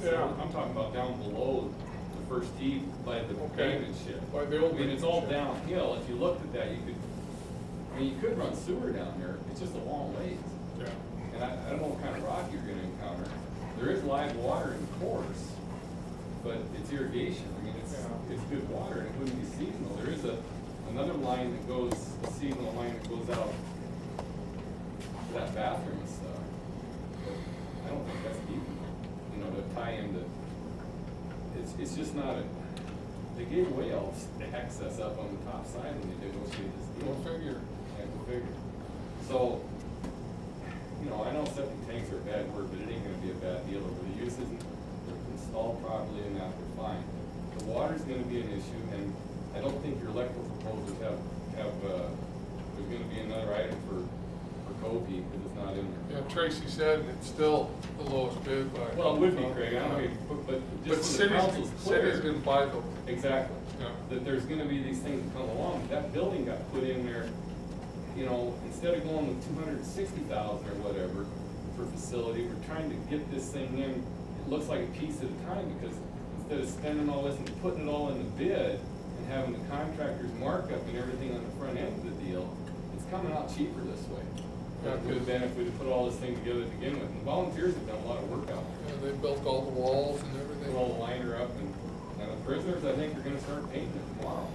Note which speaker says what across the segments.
Speaker 1: said, I'm, I'm talking about down below the first tee by the
Speaker 2: Okay.
Speaker 1: pavement shed.
Speaker 2: By the old
Speaker 1: I mean, it's all
Speaker 2: pavement shed.
Speaker 1: downhill, if you looked at that, you could, I mean, you could run sewer down there, it's just a long ways.
Speaker 2: Yeah.
Speaker 1: And I, I don't know what kind of rock you're gonna encounter, there is live water in course, but it's irrigation, I mean, it's,
Speaker 2: Yeah.
Speaker 1: it's good water, and it wouldn't be seasonal, there is a, another line that goes, a seasonal line that goes out to that bathroom and stuff, but I don't think that's deep, enough, you know, to tie into, it's, it's just not a, they gave away all the access up on the top side when they negotiated this deal.
Speaker 2: Go figure.
Speaker 1: Yeah, go figure. So, you know, I know septic tanks are a bad word, but it ain't gonna be a bad deal, if the use isn't installed properly and that, we're fine. The water's gonna be an issue, and I don't think your electrical proposals have, have, uh, there's gonna be another item for, for Kobe, because it's not in
Speaker 2: Yeah,
Speaker 1: there.
Speaker 2: Tracy said it's still the lowest bid by.
Speaker 1: Well, it would be, Craig, I don't mean, but, but
Speaker 2: But
Speaker 1: just so the council's
Speaker 2: cities,
Speaker 1: clear.
Speaker 2: cities didn't buy them.
Speaker 1: Exactly.
Speaker 2: Yeah.
Speaker 1: That there's gonna be these things that come along, that building got put in there, you know, instead of going with two hundred and sixty thousand or whatever for facility, we're trying to get this thing in, it looks like a piece at a time, because instead of spending all this and putting it all in the bid and having the contractors markup and everything on the front end of the deal, it's coming out cheaper this way.
Speaker 2: Yeah,
Speaker 1: That would have been if we'd put all this thing together to begin with, and volunteers have done a lot of work out there
Speaker 2: Yeah, they built all the walls and
Speaker 1: put
Speaker 2: everything.
Speaker 1: all the liner up and, and the prisoners, I think, are gonna start painting it tomorrow.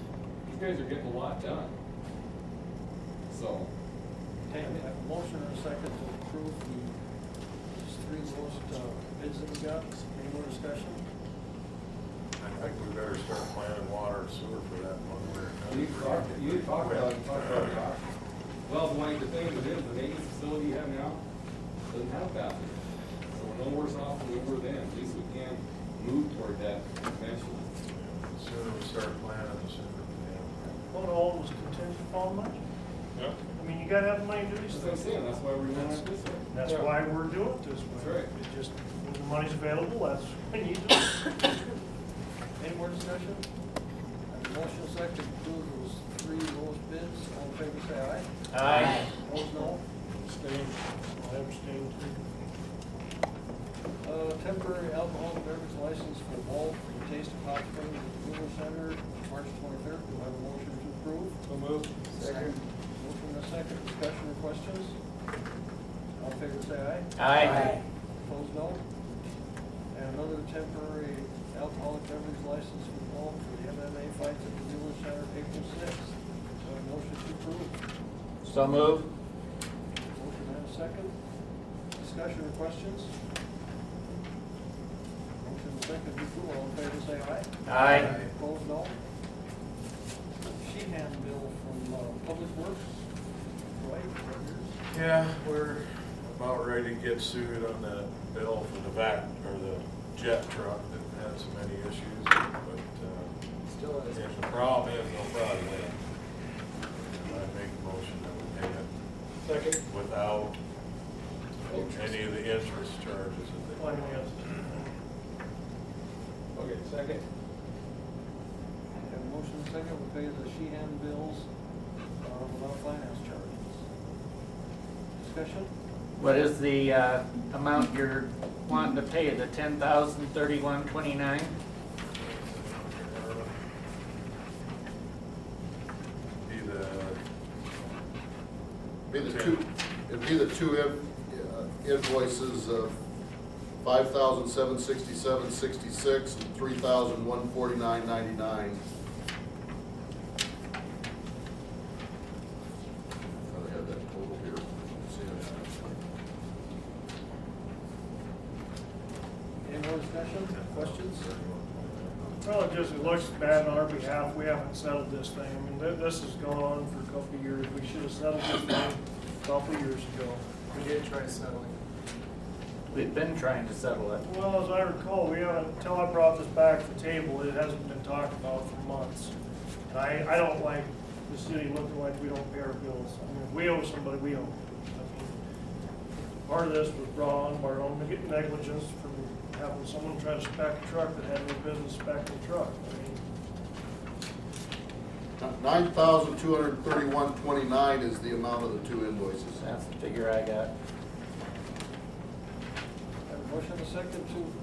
Speaker 1: These guys are getting a lot done. So,
Speaker 3: Okay, we have a motion and a second to approve the these three lowest uh, bids that we got. Any more discussion?
Speaker 4: I think we better start planning water and sewer for that one where.
Speaker 1: you need to talk, you need to talk about, it, talk about the options. Well, the one, the thing that is, the maintenance facility you have now doesn't have a bathroom. So we're no worse off than we were then, at least we can move toward that eventually.
Speaker 4: Sooner we start planning, the sooner we
Speaker 3: Well, it all was contingent upon money.
Speaker 2: Yeah.
Speaker 3: I mean, you gotta have money to
Speaker 1: That's
Speaker 3: do these
Speaker 1: what I'm
Speaker 3: things.
Speaker 1: saying, that's why we're doing it this way.
Speaker 3: That's why we're doing it this way.
Speaker 1: That's right.
Speaker 3: It just, when the money's available, that's when you do it. Any more discussion?
Speaker 5: And Motion second, to approve those three lowest bids, all in favor, say aye.
Speaker 4: can. Aye.
Speaker 5: Opposed, no.
Speaker 3: Abstained. I abstained too.
Speaker 5: Uh, temporary alcohol and beverage license for Walt for the Taste of Hot Springs at the Google Center, March twenty-third, do I have a motion to approve?
Speaker 2: So moved.
Speaker 5: Second. Motion and a second, discussion or questions? All in favor, say aye.
Speaker 6: Aye.
Speaker 5: Opposed, no. And another temporary alcoholic beverage license for Walt for the MMA fights at the Google Center, April sixth, do I have a motion to approve?
Speaker 6: So move.
Speaker 5: Motion and a second. Discussion or questions? Motion and second to approve, all in favor say aye.
Speaker 6: Aye.
Speaker 5: Opposed, no. Sheehan bill from uh, Public Works, right, right here.
Speaker 4: Yeah, we're about ready to get sued on the bill for the back, or the jet truck that has many issues, but, uh,
Speaker 6: Still
Speaker 4: if the problem is, no problem with it. I make a motion that we pay it
Speaker 2: Second.
Speaker 4: without any of the interest charges that they.
Speaker 3: Well, I know yes.
Speaker 2: Okay, second.
Speaker 5: Have a motion and second, we pay the Sheehan bills uh, without finance charges. Discussion?
Speaker 6: What is the uh, amount you're wanting to pay, the ten thousand thirty-one twenty-nine?
Speaker 4: Be the
Speaker 7: Be the two, it'd be the two in- uh, invoices of five thousand seven sixty-seven sixty-six and three thousand one forty-nine ninety-nine. I have that total here. Let's see if
Speaker 5: Any more discussion, questions?
Speaker 3: Well, it just, it looks bad on our behalf, we haven't settled this thing, I mean, thi- this has gone on for a couple of years, we should have settled this thing a couple of years ago.
Speaker 5: We did try settling.
Speaker 6: We've been trying to settle it.
Speaker 3: Well, as I recall, we haven't, until I brought this back to the table, it hasn't been talked about for months. And I, I don't like the city looking like we don't pay our bills, I mean, if we owe somebody, we owe. them. I mean, Part of this was brought on by our own neg- negligence from having someone try to spec a truck that had no business spec'ing a truck, I mean,
Speaker 7: Nine thousand two hundred thirty-one twenty-nine is the amount of the two invoices.
Speaker 6: That's the figure I got.
Speaker 5: Have a motion and second to